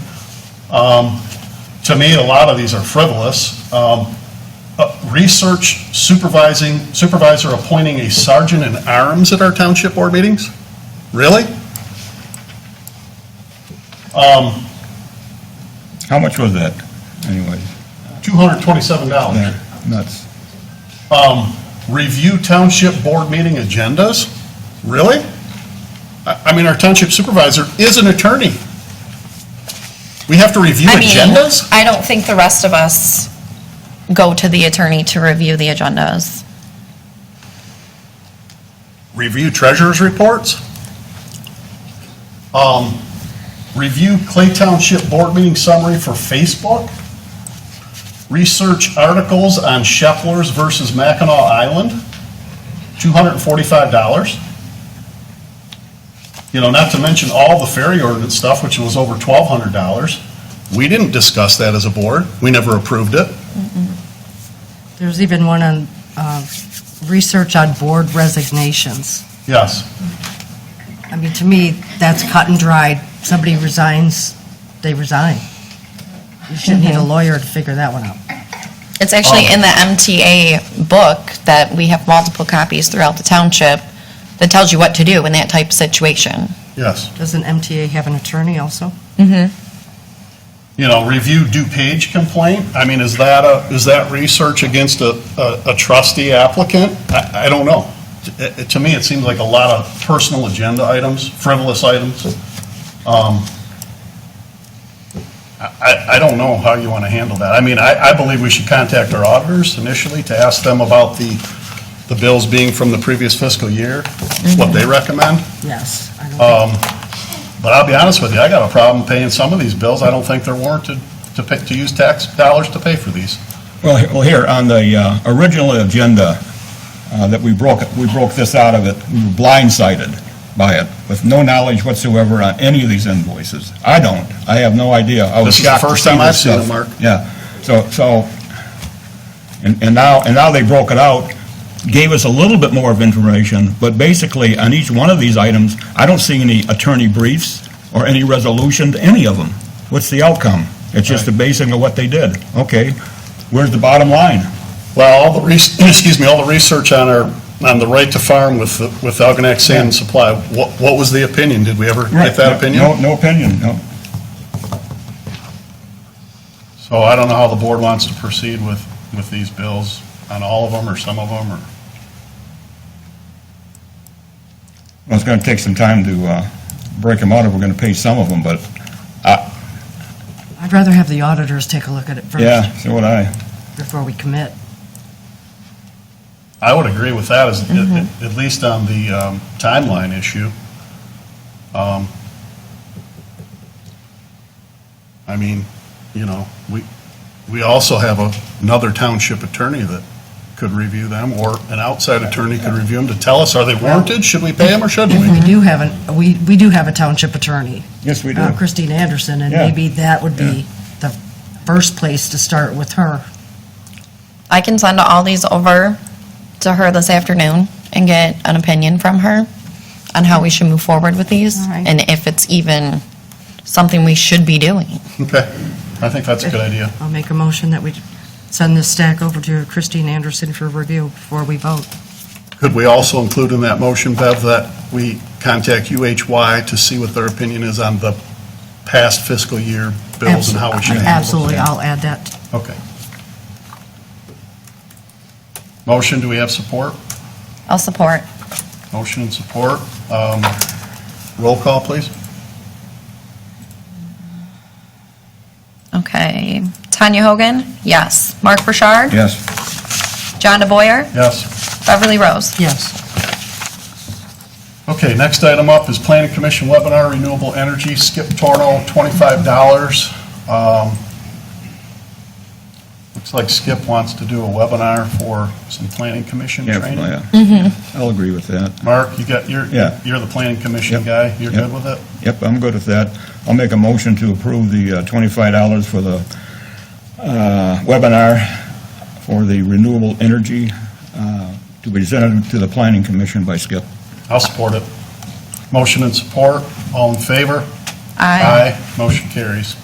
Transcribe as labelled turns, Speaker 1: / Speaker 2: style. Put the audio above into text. Speaker 1: Um, To me, a lot of these are frivolous. Um, uh, Research supervising, supervisor appointing a sergeant in arms at our township board meetings? Really?
Speaker 2: How much was that, anyway?
Speaker 1: $227.
Speaker 2: Yeah, Nuts.
Speaker 1: Review township board meeting agendas? Really? I I mean, our township supervisor is an attorney. We have to review
Speaker 3: I mean,
Speaker 1: agendas?
Speaker 3: I don't think the rest of us go to the attorney to review the agendas.
Speaker 1: Review treasurer's reports? Um, Review Clay Township Board Meeting Summary for Facebook? Research articles on Shepler's versus Mackinac Island? $245. You know, not to mention all the ferry ordinance stuff, which was over $1,200. We didn't discuss that as a board. We never approved it.
Speaker 4: There's even one on uh, research on board resignations.
Speaker 1: Yes.
Speaker 4: I mean, to me, that's cut and dried. Somebody resigns, they resign. You shouldn't need a lawyer to figure that one out.
Speaker 3: It's actually in the MTA book that we have multiple copies throughout the township that tells you what to do in that type of situation.
Speaker 1: Yes.
Speaker 4: Doesn't MTA have an attorney also?
Speaker 1: you know, review DuPage complaint? I mean, is that a, is that research against a, a a trustee applicant? I, I don't know. It- it- To me, it seems like a lot of personal agenda items, frivolous items. Um, I, I- I don't know how you want to handle that. I mean, I, I believe we should contact our auditors initially to ask them about the, the bills being from the previous fiscal year, what they recommend.
Speaker 4: Yes. I
Speaker 2: Uh,
Speaker 4: don't think-
Speaker 1: But I'll be honest with you, I got a problem paying some of these bills. I don't think they're warranted to pay, to use tax dollars to pay for these.
Speaker 2: Well, he- well, here, on the uh, original agenda uh, that we broke, we broke this out of it, we were blindsided by it, with no knowledge whatsoever on any of these invoices. I don't, I have no idea. I was
Speaker 1: This is the
Speaker 2: shocked to
Speaker 1: first
Speaker 2: see
Speaker 1: time
Speaker 2: this
Speaker 1: I've seen it,
Speaker 2: stuff.
Speaker 1: Mark.
Speaker 2: Yeah, so, so, and and now, and now they broke it out, gave us a little bit more of information, but basically, on each one of these items, I don't see any attorney briefs or any resolution to any of them. What's the outcome? It's just a basing of what they did. Okay, where's the bottom line?
Speaker 1: Well, all the, res- excuse me, all the research on our, on the right to farm with, the- with Algonac Sand and Supply, what, what was the opinion? Did we ever get that
Speaker 2: No,
Speaker 1: opinion?
Speaker 2: no opinion, no.
Speaker 1: So I don't know how the board wants to proceed with, with these bills, on all of them or some of them, or,
Speaker 2: Well, it's going to take some time to uh, break them out if we're going to pay some of them, but,
Speaker 4: I'd rather have the auditors take a look at it
Speaker 2: yeah,
Speaker 4: first
Speaker 2: so would I.
Speaker 4: before we commit.
Speaker 1: I would agree with that as,
Speaker 4: Mm-hmm.
Speaker 1: at, at least on the um, timeline issue. Um, I mean, you know, we, we also have a- another township attorney that could review them, or an outside attorney could review them to tell us, are they warranted? Should we pay them or shouldn't
Speaker 4: And
Speaker 1: we?
Speaker 4: we do have, an we, we do have a township attorney,
Speaker 2: Yes, we do.
Speaker 4: uh, Christine Anderson, and
Speaker 2: Yeah.
Speaker 4: maybe that would be the first place to start with her.
Speaker 3: I can send all these over to her this afternoon and get an opinion from her on how we should move forward with these
Speaker 4: All right.
Speaker 3: and if it's even something we should be doing.
Speaker 1: Okay, I think that's a good idea.
Speaker 4: I'll make a motion that we send this stack over to Christine Anderson for review before we vote.
Speaker 1: Could we also include in that motion, Bev, that we contact UHY to see what their opinion is on the past fiscal year bills and how we should handle them?
Speaker 4: Absolutely, I'll add that.
Speaker 1: Okay. Motion, do we have support?
Speaker 3: I'll support.
Speaker 1: Motion and support. Um, Roll call, please.
Speaker 3: Okay. Tanya Hogan? Yes. Mark Burchard?
Speaker 2: Yes.
Speaker 3: John DeBoyer?
Speaker 1: Yes.
Speaker 3: Beverly Rose?
Speaker 4: Yes.
Speaker 1: Okay, next item up is Planning Commission webinar, renewable energy, Skip Torno, $25. Um, Looks like Skip wants to do a webinar for some planning commission
Speaker 2: Yeah,
Speaker 1: training.
Speaker 2: well, yeah. I'll agree with that.
Speaker 1: Mark, you got, you're,
Speaker 2: Yeah.
Speaker 1: you're the planning commission
Speaker 2: Yep.
Speaker 1: guy. You're
Speaker 2: Yep.
Speaker 1: good with it?
Speaker 2: Yep, I'm good with that. I'll make a motion to approve the uh, $25 for the uh, webinar for the renewable energy uh, to be presented to the Planning Commission by Skip.
Speaker 1: I'll support it. Motion and support. All in favor? Motion carries.